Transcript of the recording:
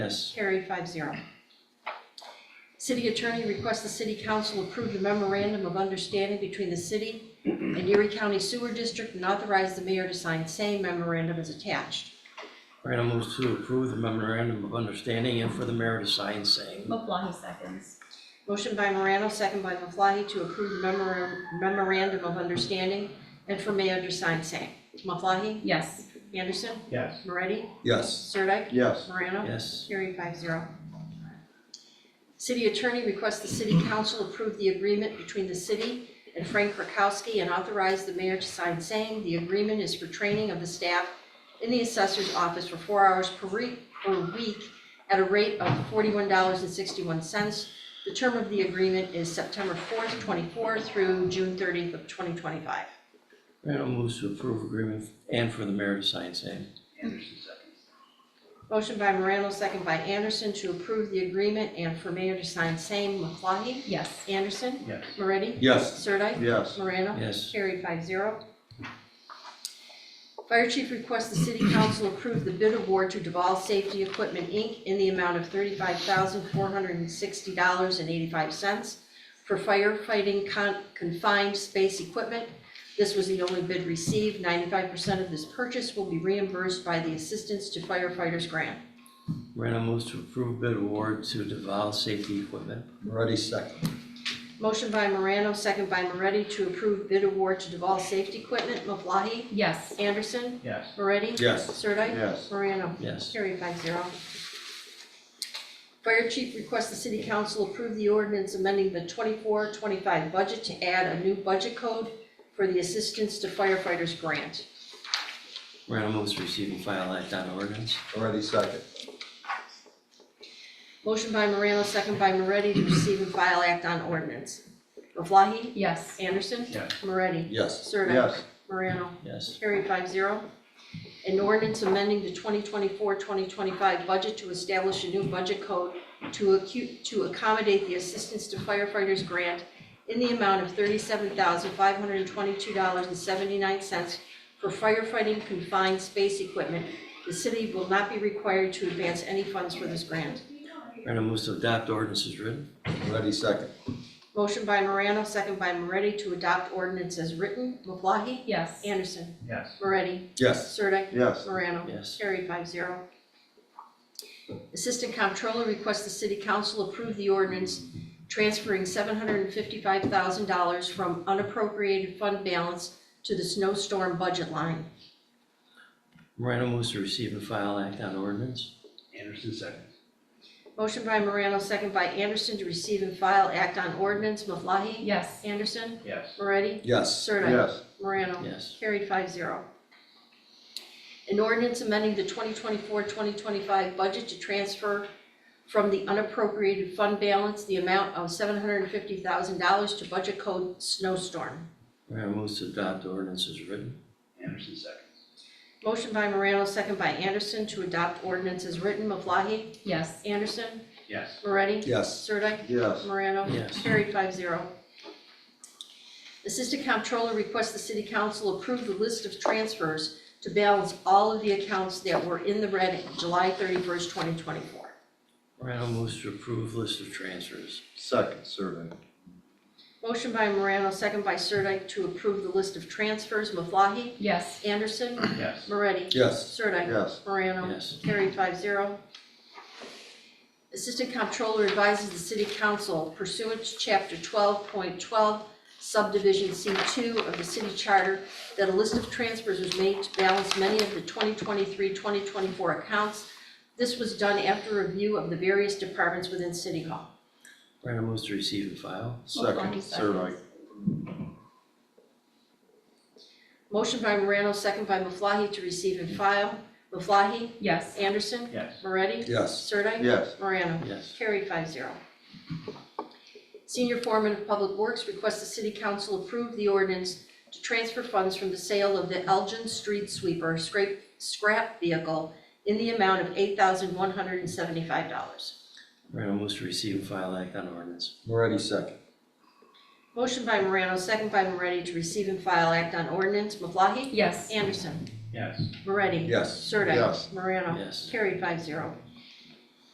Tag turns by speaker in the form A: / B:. A: Yes.
B: Carried five zero. City attorney requests the city council approve the memorandum of understanding between the city and Erie County Sewer District and authorize the mayor to sign same memorandum as attached.
A: Morano moves to approve the memorandum of understanding and for the mayor to sign saying.
C: Maflahe seconds.
B: Motion by Morano, second by Maflahe, to approve the memora- memorandum of understanding and for mayor to sign same. Maflahe?
C: Yes.
B: Anderson?
D: Yes.
B: Moretti?
E: Yes.
B: Sirdike?
E: Yes.
B: Morano?
A: Yes.
B: Carried five zero. City attorney requests the city council approve the agreement between the city and Frank Rakowski and authorize the mayor to sign saying the agreement is for training of the staff in the assessor's office for four hours per week, per week at a rate of forty-one dollars and sixty-one cents. The term of the agreement is September fourth, twenty-four through June thirtieth of twenty twenty-five.
A: Morano moves to approve agreement and for the mayor to sign saying.
D: Anderson seconds.
B: Motion by Morano, second by Anderson to approve the agreement and for mayor to sign same. Maflahe?
C: Yes.
B: Anderson?
D: Yes.
B: Moretti?
E: Yes.
B: Sirdike?
E: Yes.
B: Morano?
A: Yes.
B: Carried five zero. Fire chief requests the city council approve the bid award to Duval Safety Equipment, Inc. in the amount of thirty-five thousand, four hundred and sixty dollars and eighty-five cents for firefighting con- confined space equipment. This was the only bid received. Ninety-five percent of this purchase will be reimbursed by the Assistance to Firefighters Grant.
A: Morano moves to approve bid award to Deval Safety Equipment.
E: Moretti second.
B: Motion by Morano, second by Moretti to approve bid award to Duval Safety Equipment. Maflahe?
C: Yes.
B: Anderson?
D: Yes.
B: Moretti?
E: Yes.
B: Sirdike?
E: Yes.
B: Morano?
A: Yes.
B: Carried five zero. Fire chief requests the city council approve the ordinance amending the 24-25 budget to add a new budget code for the assistance to firefighters grant.
A: Morano moves to receive and file act on ordinance.
E: Moretti second.
B: Motion by Morano, second by Moretti to receive and file act on ordinance. Maflahe?
C: Yes.
B: Anderson?
D: Yes.
B: Moretti?
E: Yes.
B: Sirdike?
E: Yes.
B: Morano?
A: Yes.
B: Carried five zero. An ordinance amending the 2024-2025 budget to establish a new budget code to acu- to accommodate the assistance to firefighters grant in the amount of $37,522.79 for firefighting confined space equipment. The city will not be required to advance any funds for this grant.
A: Morano moves to adopt ordinance as written.
E: Moretti second.
B: Motion by Morano, second by Moretti to adopt ordinance as written. Maflahe?
C: Yes.
B: Anderson?
D: Yes.
B: Moretti?
E: Yes.
B: Sirdike?
E: Yes.
B: Morano?
A: Yes.
B: Carried five zero. Assistant Comptroller requests the City Council approve the ordinance transferring seven hundred and fifty-five thousand dollars from unappropriated fund balance to the snowstorm budget line.
A: Morano moves to receive and file act on ordinance.
D: Anderson seconds.
B: Motion by Morano, second by Anderson to receive and file act on ordinance. Maflahe?
C: Yes.
B: Anderson?
D: Yes.
B: Moretti?
E: Yes.
B: Sirdike?
E: Yes.
B: Morano?
A: Yes.
B: Carried five zero. An ordinance amending the 2024-2025 budget to transfer from the unappropriated fund balance the amount of $750,000 to budget code snowstorm.
A: Morano moves to adopt ordinance as written.
D: Anderson seconds.
B: Motion by Morano, second by Anderson to adopt ordinance as written. Maflahe?
C: Yes.
B: Anderson?
D: Yes.
B: Moretti?
E: Yes.
B: Sirdike?
E: Yes.
B: Morano?
A: Yes.
B: Carried five zero. Assistant Comptroller requests the City Council approve the list of transfers to balance all of the accounts that were in the red at July thirty-first, twenty twenty-four.
A: Morano moves to approve list of transfers.
E: Second, Sirdike.
B: Motion by Morano, second by Sirdike, to approve the list of transfers. Maflahe?
C: Yes.
B: Anderson?
D: Yes.
B: Moretti?
E: Yes.
B: Sirdike?
E: Yes.
B: Morano?
A: Yes.
B: Carried five zero. Assistant Comptroller advises the City Council pursuant to Chapter twelve point twelve subdivision C two of the city charter that a list of transfers was made to balance many of the 2023-2024 accounts. This was done after review of the various departments within City Hall.
A: Morano moves to receive and file.
E: Second,
C: Maflahe
E: Sirdike.
B: Motion by Morano, second by Maflahe to receive and file. Maflahe?
C: Yes.
B: Anderson?
D: Yes.
B: Moretti?
E: Yes.
B: Sirdike?
E: Yes.
B: Morano?
A: Yes.
B: Carried five zero. Senior Foreman of Public Works requests the City Council approve the ordinance to transfer funds from the sale of the Elgin Street Sweeper scrape, scrap vehicle in the amount of eight thousand one hundred and seventy-five dollars.
A: Morano moves to receive and file act on ordinance.
E: Moretti second.
B: Motion by Morano, second by Moretti to receive and file act on ordinance. Maflahe?
C: Yes.
B: Anderson?
D: Yes.
B: Moretti?
E: Yes.
B: Sirdike?
E: Yes.
B: Morano?
A: Yes.
B: Carried five zero.